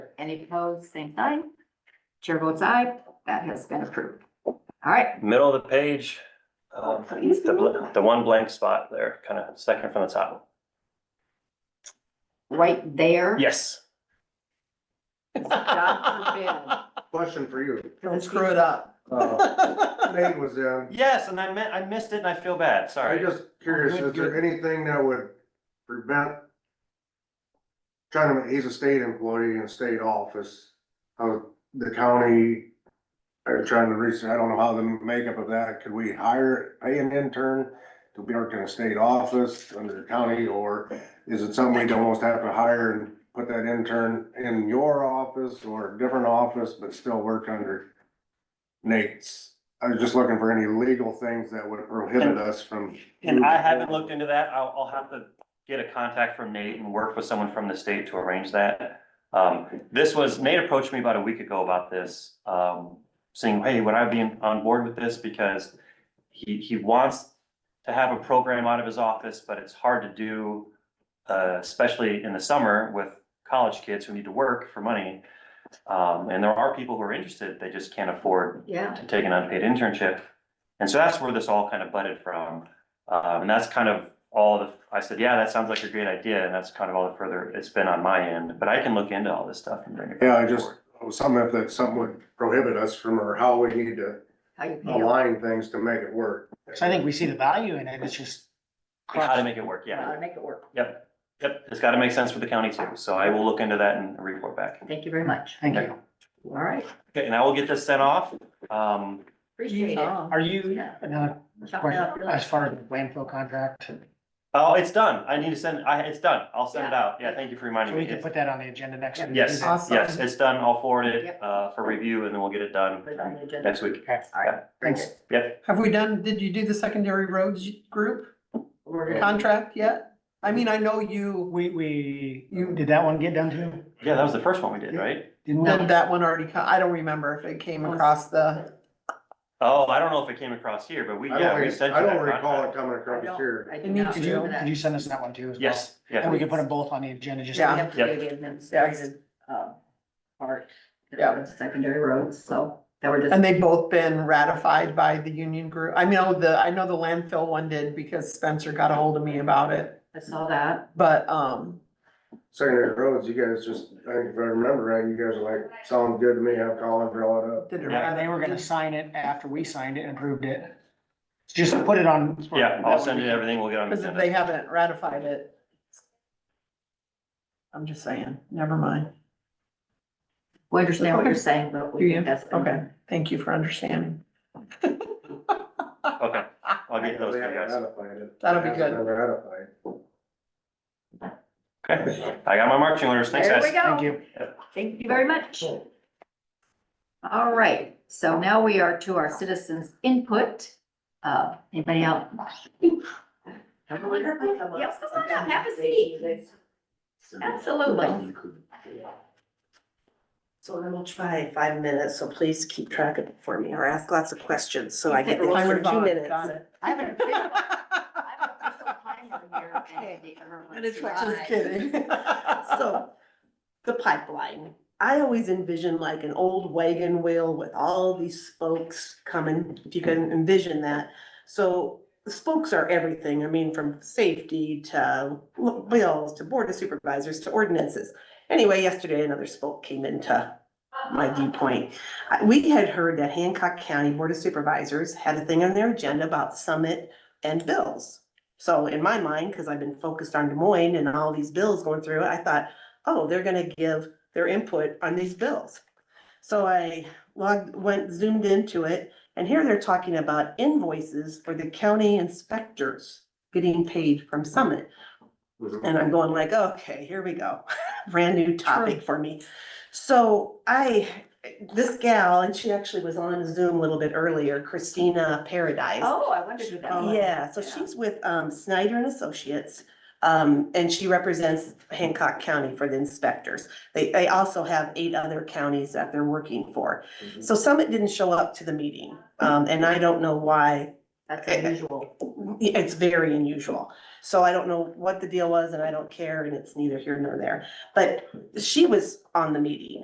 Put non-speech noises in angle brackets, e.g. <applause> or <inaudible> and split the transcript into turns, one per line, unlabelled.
Any opposed, same sign. Chair votes aye, that has been approved. All right,
Middle of the page, um,
Oh,
the, bl- the one blank spot there, kind of second from the top.
right there.
Yes.
<laughs> God
Question
<laughs>
for you.
Don't screw it up.
Uh, Nate was in.
Yes, and I meant, I missed it and I feel bad,
I'm
sorry.
just curious,
Good,
is there
good.
anything that would prevent Chinaman, he's a state employee in state office, how the county are trying to reach, I don't know how the makeup of that, could we hire, pay an intern to be working in a state office under the county, or is it something we'd almost have to hire and put that intern in your office or a different office, but still work under Nate's? I was just looking for any legal things that would prohibit us from.
And I haven't looked into that. I'll, I'll have to get a contact from Nate and work with someone from the state to arrange that. Um, this was, Nate approached me about a week ago about this, um, saying, hey, would I be on board with this? Because he, he wants to have a program out of his office, but it's hard to do, uh, especially in the summer with college kids who need to work for money. Um, and there are people who are interested, they just can't afford
Yeah,
to take an unpaid internship. And so that's where this all kind of budded from. Um, and that's kind of all the, I said, yeah, that sounds like a great idea. And that's kind of all the further it's been on my end, but I can look into all this stuff and bring it.
Yeah, I
back
just- oh,
forward.
Some if that some would prohibit us from, or how we need to
how you feel.
align things to make it work.
So I think we see the value in it, it's just.
How to make it work.
How
Yeah.
to make it work.
Yep. Yep. It's got to make sense for the county too. So I will look into that and report back.
Thank you very much.
Thank you.
All right,
Okay. And I will get this sent off. Um,
appreciate it.
Are you,
Yeah.
another question, as far as the landfill contract, so
oh, it's done. I need to send, I, it's done. I'll send it out. Yeah. Thank you for reminding
we
me.
can
It's-
put that on the agenda next week?
Yes,
Awesome.
yes, it's done. I'll forward it,
Yep.
uh, for review and then we'll get it done
Put it on the agenda.
next week.
Okay.
All right,
Thanks.
Yep.
Have we done, did you do the secondary roads group
we're gonna,
contract yet? I mean, I know you
We, we, you, did that one get done too?
Yeah, that was the first one we did, right?
Didn't
did that one already, co- I don't remember if it came across the,
Oh, I don't know if it came across here, but we,
I
yeah,
don't,
we
re-
sent
I
you that
don't recall it
contract.
coming
I
across
don't,
here.
I
It
do
needs
not
to
Did you,
remember
did
that.
you send us that one too? as well?
Yes,
And
yeah,
we can put them both on the agenda, just.
We
Yeah.
have to
Yep.
do the administrative, uh, part.
Yeah.
Secondary roads, so that were just.
and they've both been ratified by the union group. I know the, I know the landfill one did because Spencer got a hold of me about it,
I saw that.
but, um,
Secondary roads, you guys just, I think if I remember right, you guys are like, sound good to me, have Colin draw it up.
did it.
Yeah, they were gonna sign it after we signed it and approved it. Just put it on.
yeah, I'll send you everything, we'll get on. the
Cause if
agenda.
they haven't ratified it. I'm just saying, never mind.
We understand what you're saying, but
Do
we
you?
think that's.
Okay, thank you for understanding.
Okay, I'll get those to you guys.
That'll be good.
Ratified.
Okay, I got my marching orders, thanks
There we
guys.
Thank
go.
you.
Thank you very much. All right, so now we are to our citizens' input. Uh, anybody out? Yes, come on up, have a seat. Absolutely.
So then we'll try five minutes, so please keep track of it for me or ask lots of questions, so
<laughs>
I get
Take a
it for
roll.
two minutes.
Got
I have <laughs>
<laughs>
an official, I have an official timer here.
Okay.
And it's
Just kidding.
<laughs>
<laughs>
So, the pipeline, I always envision like an old wagon wheel with all these spokes coming, if you can envision that. So the spokes are everything, I mean, from safety to bills, to board of supervisors, to ordinances. Anyway, yesterday another spoke came into my viewpoint. I- We had heard that Hancock County Board of Supervisors had a thing on their agenda about summit and bills. So in my mind, because I've been focused on Des Moines and all these bills going through, I thought, oh, they're gonna give their input on these bills. So I logged, went zoomed into it, and here they're talking about invoices for the county inspectors getting paid from Summit. And I'm going like, okay, here we go, <laughs> brand new topic for me. So I, this gal, and she actually was on Zoom a little bit earlier, Christina Paradise.
Oh, I wondered who that was.
Yeah, so she's with um Snyder and Associates, um, and she represents Hancock County for the inspectors. They, they also have eight other counties that they're working for. So Summit didn't show up to the meeting, um, and I don't know why.
That's unusual.
It's very unusual. So I don't know what the deal was, and I don't care, and it's neither here nor there. But she was on the meeting,